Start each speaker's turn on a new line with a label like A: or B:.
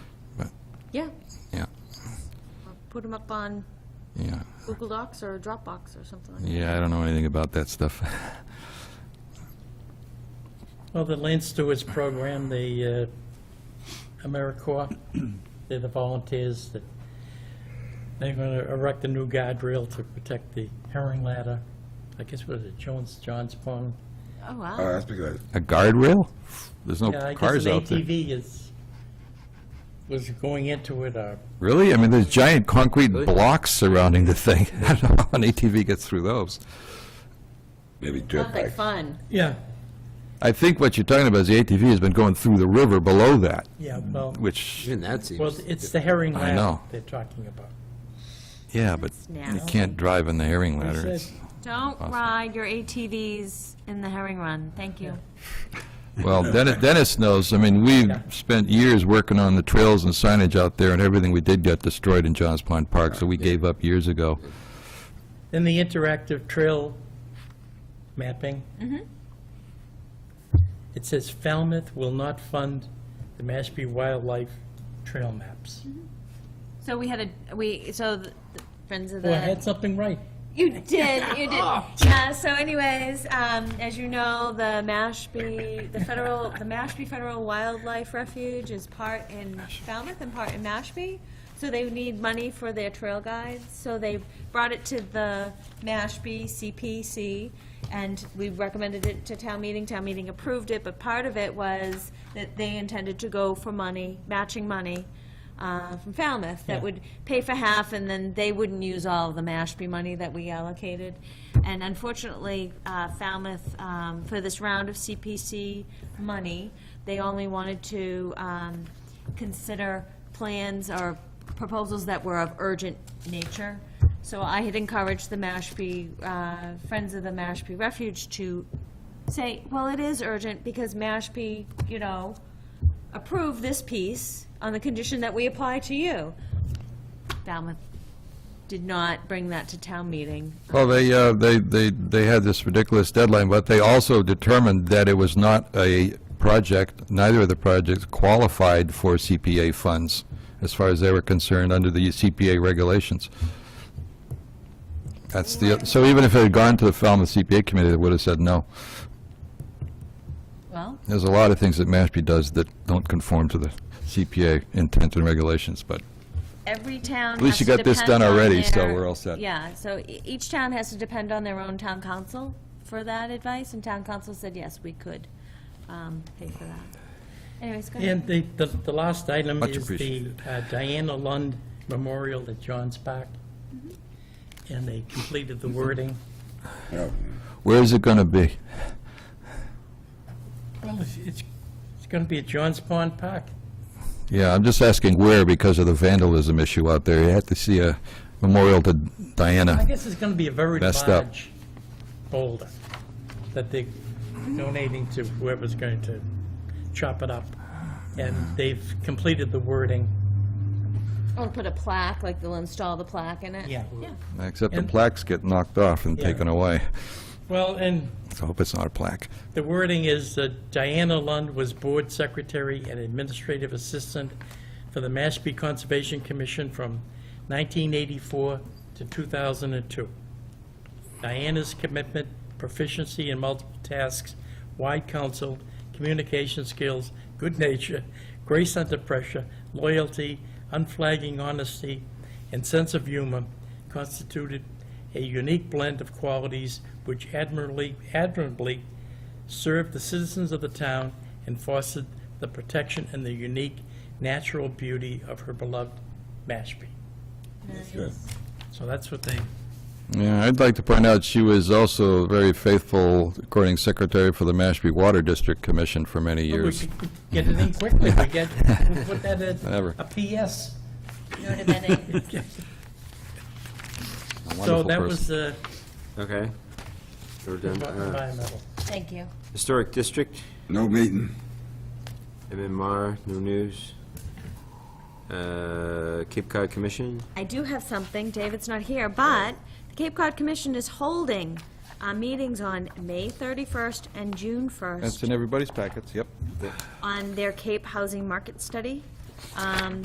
A: Yeah,
B: Yeah,
A: put them up on
B: yeah.
A: Google Docs or Dropbox or something like that.
B: Yeah, I don't know anything about that stuff.
C: Well, the Land Stewards Program, the uh, AmeriCorps, they're the volunteers that, they're going to erect a new guardrail to protect the herring ladder. I guess what is it, Jones, John's Pond?
A: Oh,
D: Oh,
A: wow.
D: that's because,
B: A guardrail? There's no
C: Yeah, I guess
B: Oh, cars
C: an
B: out there.
C: ATV is, was going into it, uh,
B: Really? I mean, there's giant concrete blocks surrounding the thing. I don't know how an ATV gets through those.
D: maybe dirt
A: Sounds like
D: bike.
A: fun.
C: yeah,
B: I think what you're talking about is the ATV has been going through the river below that,
C: yeah, well,
B: which,
E: Even that
C: well,
E: seems,
C: it's the herring
B: Mm-hmm. I
C: ladder
B: know.
C: they're talking about.
B: yeah, but
A: Now.
B: you can't drive in the herring ladder. It's-
A: Don't ride your ATVs in the herring run, thank you.
B: Well, Dennis, Dennis knows, I mean, we've
C: Yeah.
B: spent years working on the trails and signage out there, and everything we did got destroyed in Johns Pond Park, so we gave up years ago.
C: Then the interactive trail mapping. It says Falmouth will not fund the Mashpee Wildlife Trail maps.
A: So we had a, we, so the the Friends of the.
C: Well, I had something right.
A: You did, you did. Yeah, so anyways, um, as you know, the Mashpee, the federal, the Mashpee Federal Wildlife Refuge is part in Falmouth and part in Mashpee. So they need money for their trail guides, so they brought it to the Mashpee CPC, and we recommended it to town meeting, town meeting approved it, but part of it was that they intended to go for money, matching money, uh, from Falmouth that
C: Yeah.
A: would pay for half, and then they wouldn't use all of the Mashpee money that we allocated. And unfortunately, uh, Falmouth, um, for this round of CPC money, they only wanted to um, consider plans or proposals that were of urgent nature. So I had encouraged the Mashpee, uh, Friends of the Mashpee Refuge to say, well, it is urgent because Mashpee, you know, approve this piece on the condition that we apply to you. Falmouth did not bring that to town meeting.
B: Well, they, uh, they, they, they had this ridiculous deadline, but they also determined that it was not a project, neither of the projects qualified for CPA funds, as far as they were concerned, under the CPA regulations. That's the, so even if it had gone to the Falmouth CPA committee, they would have said no.
A: Well,
B: There's a lot of things that Mashpee does that don't conform to the CPA intent and regulations, but
A: every town
B: At least
A: has
B: you
A: to
B: got this
A: depend
B: done
A: on
B: already, so
A: their-
B: we're all set.
A: Yeah, so e- each town has to depend on their own town council for that advice, and town council said, yes, we could um, pay for that. Anyways, go ahead.
C: And the, the, the last item
B: Much
C: is the
B: appreciated.
C: uh, Diana Lund Memorial at Johns Park. And they completed
B: Mm-hmm.
C: the wording.
D: No,
B: where is it going to be?
C: Well, it's, it's going to be at Johns Pond Park.
B: Yeah, I'm just asking where because of the vandalism issue out there. You have to see a memorial to
C: I
B: Diana.
C: guess it's going to be a very
B: Messed up.
C: large boulder that they're donating to whoever's going to chop it up. And they've completed the wording.
A: Or put a plaque, like they'll install the plaque in it.
B: Except the
C: And-
B: plaques get knocked off and
C: Yeah.
B: taken away.
C: Well, and
B: So I hope it's not a plaque.
C: the wording is that Diana Lund was board secretary and administrative assistant for the Mashpee Conservation Commission from 1984 to 2002. Diana's commitment, proficiency in multiple tasks, wide counsel, communication skills, good nature, grace under pressure, loyalty, unflagging honesty, and sense of humor constituted a unique blend of qualities which admirably, admirably served the citizens of the town and fostered the protection and the unique natural beauty of her beloved Mashpee.
D: it's good.
C: So that's what they,
B: Yeah, I'd like to point out she was also very faithful, according secretary for the Mashpee Water District Commission for many
C: we
B: years.
C: could get it in quickly, we get, we put that at
B: Whatever.
C: a PS.
A: You know what I mean?
B: A
C: So
B: wonderful
C: that
B: person.
C: was uh, the
E: okay. We're done. Uh,
C: environmental.
A: Thank you.
E: Historic District,
D: No meeting.
E: MMR, no news. Uh, Cape Cod Commission,
A: I do have something, David's not here, but the Cape Cod Commission is holding uh, meetings on May 31st and June
B: That's
A: 1st
B: in everybody's packets, yep.
A: on their Cape Housing Market Study. Um,